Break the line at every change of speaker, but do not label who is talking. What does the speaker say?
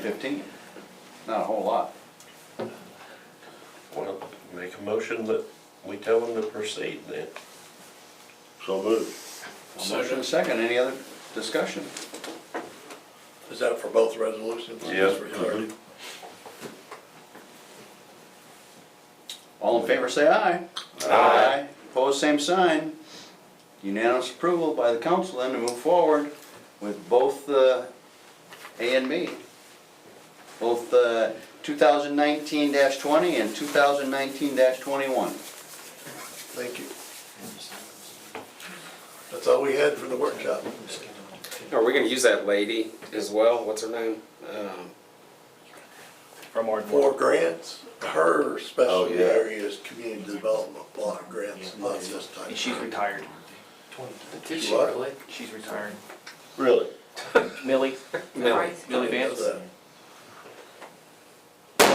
Fifteen, not a whole lot.
Well, make a motion that we tell them to proceed then.
So moved.
A Motion and second, any other discussion?
Is that for both resolutions?
Yeah.
Just for clarity.
mm-hmm.
All in favor, say aye. Aye. Opposed, same sign. Unanimous approval by the council then to move forward with both uh, A and B. Both uh, 2019-20 and 2019-21.
Thank you. That's all we had for the workshop.
Are we gonna use that lady as well? What's her name? Um,
From our
For grants, her
Oh,
specialty
yeah.
area is community development block grants, not this type.
And she's retired.
Did she really?
She's retired.
Really?
Millie,
Millie.
Millie Vance.
That.